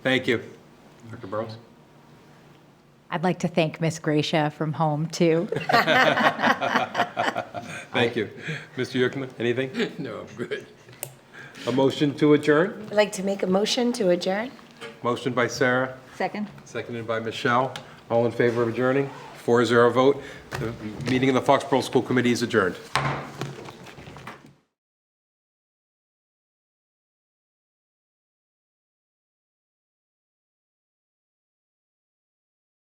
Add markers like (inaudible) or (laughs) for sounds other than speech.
Thank you. Dr. Burrows? I'd like to thank Miss Gracia from home, too. Thank you. Mr. Yurkema, anything? (laughs) No, I'm good. A motion to adjourn? I'd like to make a motion to adjourn. Motion by Sarah, Second. seconded by Michelle. All in favor of adjourning? Four zero vote. The meeting of the Foxborough School Committee is adjourned.